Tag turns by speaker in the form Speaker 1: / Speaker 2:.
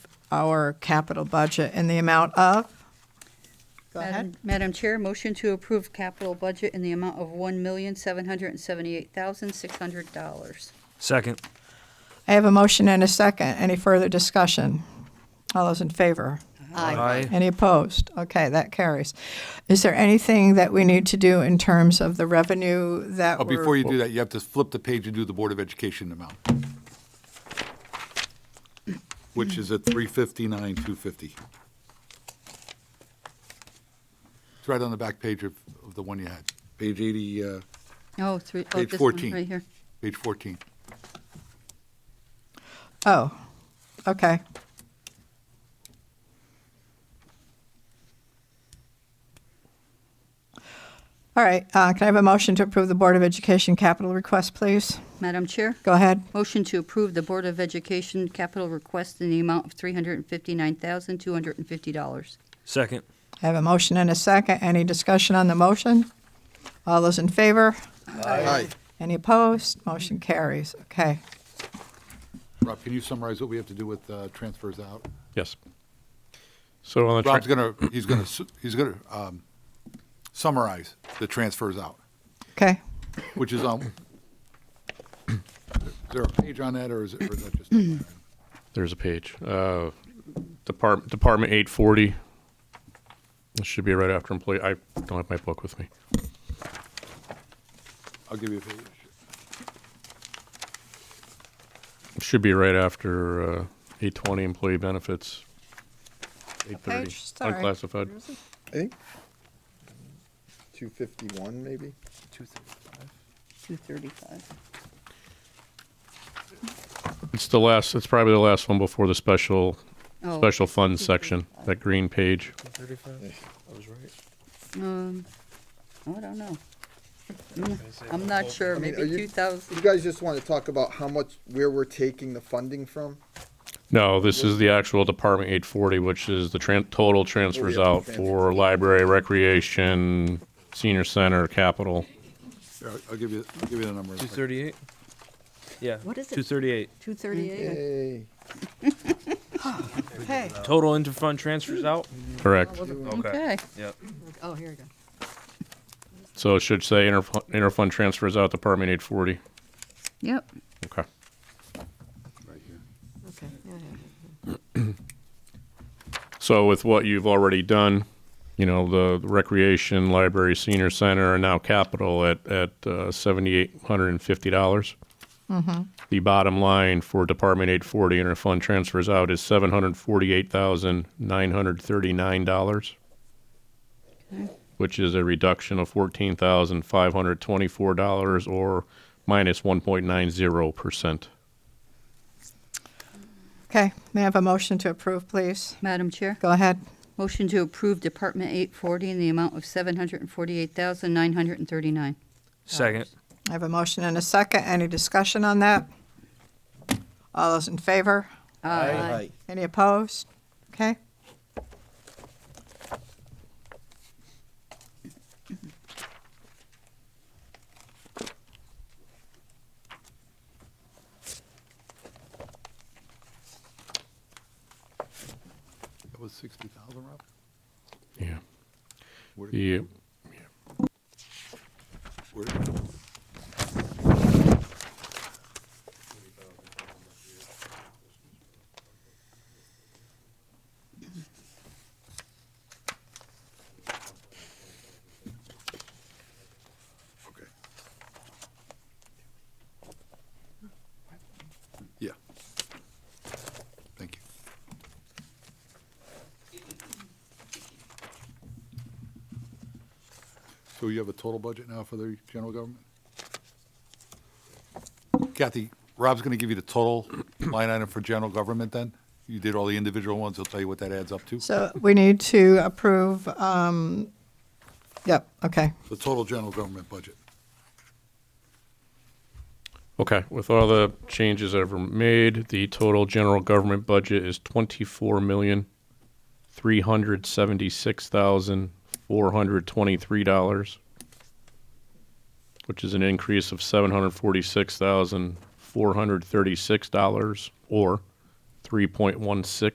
Speaker 1: our capital budget in the amount of? Go
Speaker 2: Madam-
Speaker 1: ahead.
Speaker 2: Madam Chair, motion to approve capital budget in the amount of $1,778,600.
Speaker 3: Second.
Speaker 1: I have a motion and a second. Any further discussion? All those in favor? Any opposed? Okay, that carries. Is there anything that we need to do in terms of the revenue that
Speaker 4: Oh,
Speaker 1: we're?
Speaker 4: before you do that, you have to flip the page and do the Board of Education amount, which is at three fifty-nine, two fifty. It's right on the back page of, of the one you had, page eighty, uh,
Speaker 2: Oh, three, oh,
Speaker 4: Page
Speaker 2: this one
Speaker 4: 14.
Speaker 2: right here.
Speaker 4: page fourteen.
Speaker 1: Oh, okay. All right, uh, can I have a motion to approve the Board of Education capital request, please?
Speaker 2: Madam Chair,
Speaker 1: Go ahead.
Speaker 2: motion to approve the Board of Education capital request in the amount of $359,250.
Speaker 3: Second.
Speaker 1: I have a motion and a second. Any discussion on the motion? All those in favor?
Speaker 4: Aye.
Speaker 1: Any opposed? Motion carries. Okay.
Speaker 4: Rob, can you summarize what we have to do with, uh, transfers out?
Speaker 5: Yes. So on the. tra-
Speaker 4: Rob's gonna, he's gonna, su- he's gonna, um, summarize the transfers out,
Speaker 1: Okay.
Speaker 4: which is on, is there a page on that, or is it, or is that just? a line item?
Speaker 5: There's a page. Uh, Department, Department eight forty. This should be right after employee. I don't have my book with me.
Speaker 4: I'll give you a page.
Speaker 5: It should be right after uh, eight twenty employee benefits. Eight thirty
Speaker 1: page? Sorry.
Speaker 5: unclassified.
Speaker 6: I think two fifty-one, maybe.
Speaker 2: 235.
Speaker 5: It's the last. It's probably the last one before the special
Speaker 2: Oh,
Speaker 5: special funds section. That green page.
Speaker 2: um, oh, I don't know. I'm not sure,
Speaker 6: mean,
Speaker 2: maybe
Speaker 6: are you-
Speaker 2: 2,000.
Speaker 6: You guys just want to talk about how much, where we're taking the funding from?
Speaker 5: No, this is the actual Department 840, which is the tran- total transfers
Speaker 6: Total
Speaker 5: out
Speaker 6: transfers.
Speaker 5: for library, recreation, senior center, capital.
Speaker 4: Here, I'll- I'll give you, I'll give you the number. in a
Speaker 3: Two
Speaker 4: second.
Speaker 3: thirty-eight. Yeah.
Speaker 7: What is it?
Speaker 3: Two thirty-eight.
Speaker 7: 238.
Speaker 6: Hey,
Speaker 1: Okay.
Speaker 3: Total interfund transfers out.
Speaker 5: Correct.
Speaker 2: Okay.
Speaker 3: Yep.
Speaker 7: Oh, here we go.
Speaker 5: So it should say interfund, interfund transfers out Department 840.
Speaker 2: Yep.
Speaker 5: Okay.
Speaker 4: Right here.
Speaker 7: Okay. yeah, yeah.
Speaker 5: So with what you've already done, you know, the the recreation, library, senior center, and now capital at, at uh, $7,850. dollars The bottom line for Department 840 interfund transfers out is $748,939, which is a reduction of $14,524 or minus 1.90%.
Speaker 1: Okay. May I have a motion to approve, please?
Speaker 2: Madam Chair?
Speaker 1: Go ahead.
Speaker 2: Motion to approve Department 840 in the amount of $748,939.
Speaker 3: Second.
Speaker 1: I have a motion and a second. Any discussion on that? All those in favor?
Speaker 2: Uh,
Speaker 7: Aye.
Speaker 1: Any opposed? Okay.
Speaker 4: That was sixty thousand, Rob?
Speaker 5: Yeah.
Speaker 4: Where-
Speaker 5: The
Speaker 4: where- Okay. Yeah. Thank you. So you have a total budget now for the general government? Kathy, Rob's gonna give you the total line item for general government then? You did all the individual ones, he'll tell you what that adds up to.
Speaker 1: So we need to approve, um, yep, okay.
Speaker 4: The total general government budget.
Speaker 5: Okay, with all the changes ever made, the total general government budget is twenty-four million, three hundred seventy-six thousand, four hundred twenty-three dollars, which is an increase of seven hundred forty-six thousand, four hundred thirty-six dollars, or three point one six